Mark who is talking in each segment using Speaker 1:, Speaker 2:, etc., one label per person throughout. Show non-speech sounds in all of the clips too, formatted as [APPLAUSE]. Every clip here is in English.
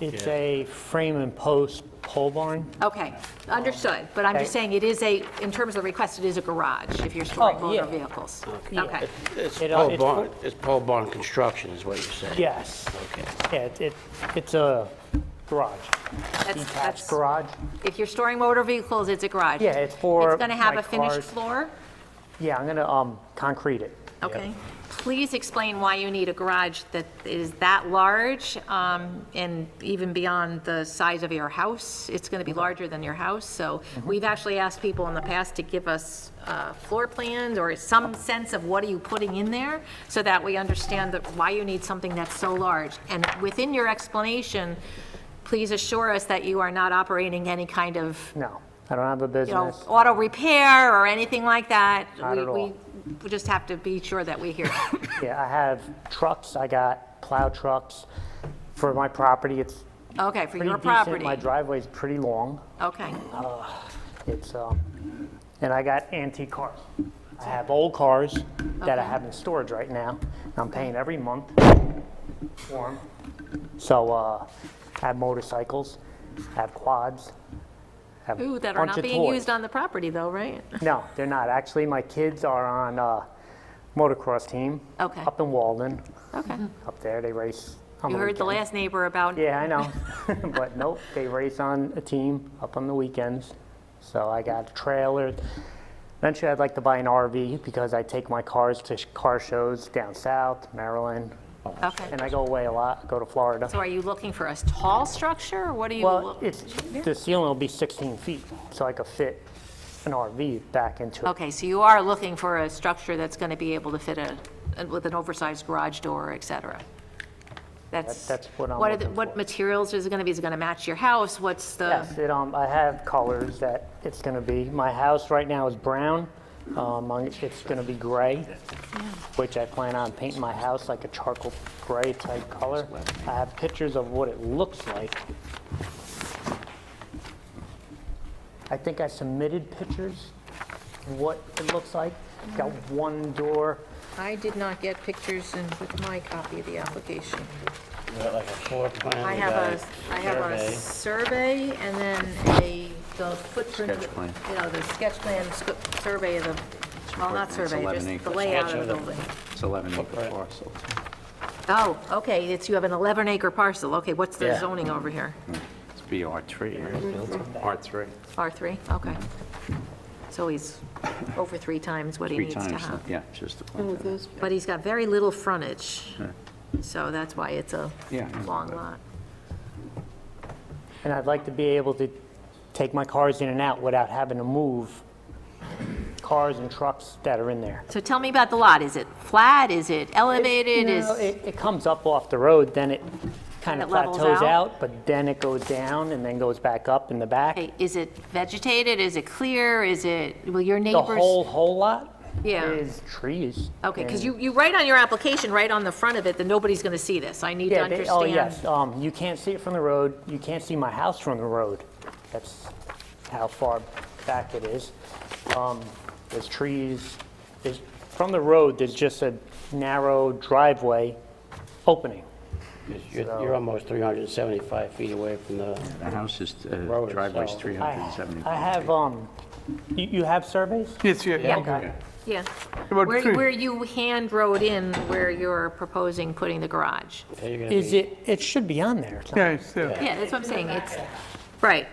Speaker 1: It's a frame and post pole barn.
Speaker 2: Okay, understood, but I'm just
Speaker 1: Okay.
Speaker 2: saying it is a, in terms of the request, it is a garage if you're storing
Speaker 1: Oh,
Speaker 2: motor
Speaker 1: yeah.
Speaker 2: vehicles.
Speaker 1: Yeah.
Speaker 2: Okay,
Speaker 3: It's
Speaker 1: It, uh,
Speaker 3: pole
Speaker 1: it's
Speaker 3: barn, it's pole barn construction is what you're saying?
Speaker 1: Yes.
Speaker 3: Okay.
Speaker 1: Yeah, it- it- it's a garage,
Speaker 2: that's,
Speaker 1: detached
Speaker 2: that's,
Speaker 1: garage.
Speaker 2: if you're storing motor vehicles, it's a garage.
Speaker 1: Yeah, it's for
Speaker 2: It's gonna have
Speaker 1: my
Speaker 2: a finished
Speaker 1: cars.
Speaker 2: floor?
Speaker 1: Yeah, I'm going to um concrete it.
Speaker 2: Okay. Please explain why you need a garage that is that large um, and even beyond the size of your house. It's going to
Speaker 1: Mm-hmm.
Speaker 2: be larger than your house, so we've actually asked people in the past to give us uh, floor plans or some sense of what are you putting in there so that we understand that why you need something that's so large. And within your explanation, please assure us that you are not operating any kind of
Speaker 1: No, I don't have a
Speaker 2: you know,
Speaker 1: business.
Speaker 2: auto repair or anything like that.
Speaker 1: Not
Speaker 2: We-
Speaker 1: at all.
Speaker 2: we- We just have to be sure that we hear.
Speaker 1: Yeah, I have trucks, I got plow trucks for my property. It's
Speaker 2: Okay, for
Speaker 1: pretty
Speaker 2: your
Speaker 1: decent.
Speaker 2: property.
Speaker 1: My driveway's pretty long.
Speaker 2: Okay,
Speaker 1: It's, um, and I got antique cars. I have old cars that I have in storage right now. and I'm paying every month for 'em. So, uh, I have motorcycles, I have quads. I have
Speaker 2: ooh, that
Speaker 1: a
Speaker 2: are
Speaker 1: bunch
Speaker 2: not
Speaker 1: of
Speaker 2: being
Speaker 1: toys.
Speaker 2: used on the property though, right?
Speaker 1: No, they're not. Actually, my kids are on, uh, motocross team.
Speaker 2: Okay.
Speaker 1: Up in Walden, [LAUGHS]
Speaker 2: Okay.
Speaker 1: up there, they race. on
Speaker 2: You heard the
Speaker 1: weekends.
Speaker 2: last neighbor about,
Speaker 1: Yeah, I know. [LAUGHS] but nope, they race on a team up on the weekends. So I got a trailer. Eventually, I'd like to buy an RV because I take my cars to sh- car shows down south, Maryland,
Speaker 2: okay.
Speaker 1: and I go away a lot. Go to Florida.
Speaker 2: So are you looking for a tall structure? or What are you?
Speaker 1: well,
Speaker 2: look-
Speaker 1: it's the ceiling will be 16 feet, so I could fit an RV back into it.
Speaker 2: Okay, so you are looking for a structure that's going to be able to fit a, a- with an oversized garage door, et cetera? That's.
Speaker 1: That- that's what I'm
Speaker 2: are the-
Speaker 1: looking
Speaker 2: What
Speaker 1: for.
Speaker 2: materials is it going to be? Is it going to match your house? What's the?
Speaker 1: Yes, it, um, I have colors that it's going to be. My house right now is brown. Um, I'm- it's going to be gray, which I plan on painting my house like a charcoal gray type color. I have pictures of what it looks like. I think I submitted pictures, of what it looks like. Got one door.
Speaker 2: I did not get pictures in with my copy of the application.
Speaker 3: Like a floor plan?
Speaker 2: I
Speaker 3: you
Speaker 2: have
Speaker 3: got
Speaker 2: a, I have a
Speaker 3: survey.
Speaker 2: survey and then a, the footprint,
Speaker 4: Sketch plan.
Speaker 2: you know, the sketch plan, sc- survey of the, well, not
Speaker 4: It's
Speaker 2: survey,
Speaker 4: 11
Speaker 2: just the
Speaker 4: acres.
Speaker 2: layout
Speaker 3: Sketch
Speaker 2: of
Speaker 3: of
Speaker 2: the
Speaker 3: the-
Speaker 2: building.
Speaker 4: It's 11 acre parcel.
Speaker 2: Oh, okay, it's, you have an 11 acre parcel, okay, what's the
Speaker 3: Yeah.
Speaker 2: zoning over here?
Speaker 4: It's BR3, right? R3.
Speaker 2: R3, okay. So he's over three times what he
Speaker 4: Three
Speaker 2: needs to have.
Speaker 4: times, yeah, just the point. of that.
Speaker 2: But he's got very little frontage, so that's why it's a
Speaker 4: Yeah, I know
Speaker 2: long
Speaker 4: that.
Speaker 2: lot.
Speaker 1: And I'd like to be able to take my cars in and out without having to move cars and trucks that are in there.
Speaker 2: So tell me about the lot, is it flat, is it elevated,
Speaker 1: No,
Speaker 2: is?
Speaker 1: It, it comes up off the road, then it kind
Speaker 2: It
Speaker 1: of
Speaker 2: levels
Speaker 1: plateaus
Speaker 2: out?
Speaker 1: out, but then it goes down and then goes back up in the back.
Speaker 2: Okay, is it vegetated, is it clear, is it, will your
Speaker 1: The
Speaker 2: neighbors?
Speaker 1: whole, whole lot
Speaker 2: Yeah.
Speaker 1: is trees.
Speaker 2: Okay, because
Speaker 1: and-
Speaker 2: you, you write on your application, right on the front of it, that nobody's going to see this, I need to
Speaker 1: Yeah, they- oh,
Speaker 2: understand.
Speaker 1: yes, um, you can't see it from the road, you can't see my house from the road. That's how far back it is. Um, There's trees, there's, from the road, there's just a narrow driveway opening.
Speaker 3: You're you're almost 375 feet away from the,
Speaker 4: The house is, uh,
Speaker 3: Road
Speaker 4: driveway's
Speaker 3: itself.
Speaker 1: I, I
Speaker 4: 375.
Speaker 1: have, um, you, you have surveys?
Speaker 5: Yes, yeah, yeah.
Speaker 2: Yeah, yeah.
Speaker 5: About
Speaker 2: Where,
Speaker 5: three.
Speaker 2: where you hand wrote in where you're proposing putting the garage.
Speaker 3: Yeah, you're gonna
Speaker 1: Is
Speaker 3: be-
Speaker 1: it, it should be on there.
Speaker 5: Yeah, it's, uh,
Speaker 2: Yeah, that's what I'm saying, it's, right.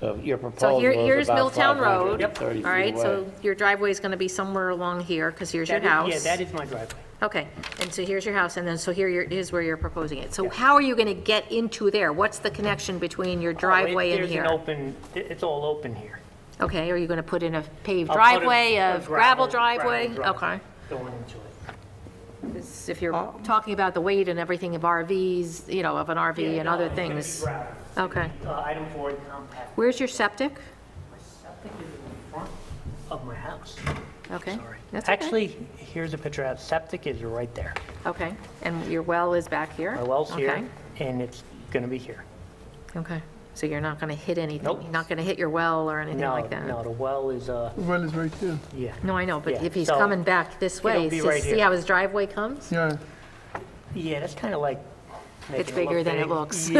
Speaker 3: so your
Speaker 2: So
Speaker 3: proposal
Speaker 2: here,
Speaker 3: is
Speaker 2: here's
Speaker 3: about
Speaker 2: Milltown Road.
Speaker 3: 530 feet
Speaker 2: All right,
Speaker 3: away.
Speaker 2: so your driveway's going to be somewhere along here, because here's your house.
Speaker 1: Yeah, that is my driveway.
Speaker 2: Okay, and so here's your house, and then, so here you're- is where you're proposing it. So how are you going to get into there? What's the connection between your driveway and
Speaker 1: There's an
Speaker 2: here?
Speaker 1: open, it- it's all open here.
Speaker 2: Okay, are you going to put in a paved
Speaker 1: I'll put a-
Speaker 2: driveway,
Speaker 1: a
Speaker 2: a gravel
Speaker 1: gravel
Speaker 2: driveway?
Speaker 1: driveway.
Speaker 2: Okay.
Speaker 1: Going into it.
Speaker 2: This- If you're talking about the weight and everything of RVs, you know, of an RV and other things.
Speaker 1: Gravel.
Speaker 2: Okay.
Speaker 1: Uh, Item four, compact.
Speaker 2: Where's your septic?
Speaker 1: My septic is in the front of my house.
Speaker 2: Okay.
Speaker 1: Sorry.
Speaker 2: That's okay.
Speaker 1: Actually, here's a picture of, septic is right there.
Speaker 2: Okay, and your well is back here?
Speaker 1: My well's
Speaker 2: Okay.
Speaker 1: here, and it's gonna be here.
Speaker 2: Okay, so you're not going to hit anything?
Speaker 1: Nope.
Speaker 2: You're not going to hit your well or anything
Speaker 1: No,
Speaker 2: like that?
Speaker 1: no, the well is, uh,
Speaker 5: well, it's right there.
Speaker 1: yeah.
Speaker 2: No, I know, but
Speaker 1: Yeah,
Speaker 2: if he's
Speaker 1: so
Speaker 2: coming back this way,
Speaker 1: it'll be right
Speaker 2: see see
Speaker 1: here.
Speaker 2: how his driveway comes?
Speaker 5: Yeah.
Speaker 1: Yeah, that's kinda like. making
Speaker 2: It's
Speaker 1: it look
Speaker 2: bigger than it
Speaker 1: big.
Speaker 2: looks.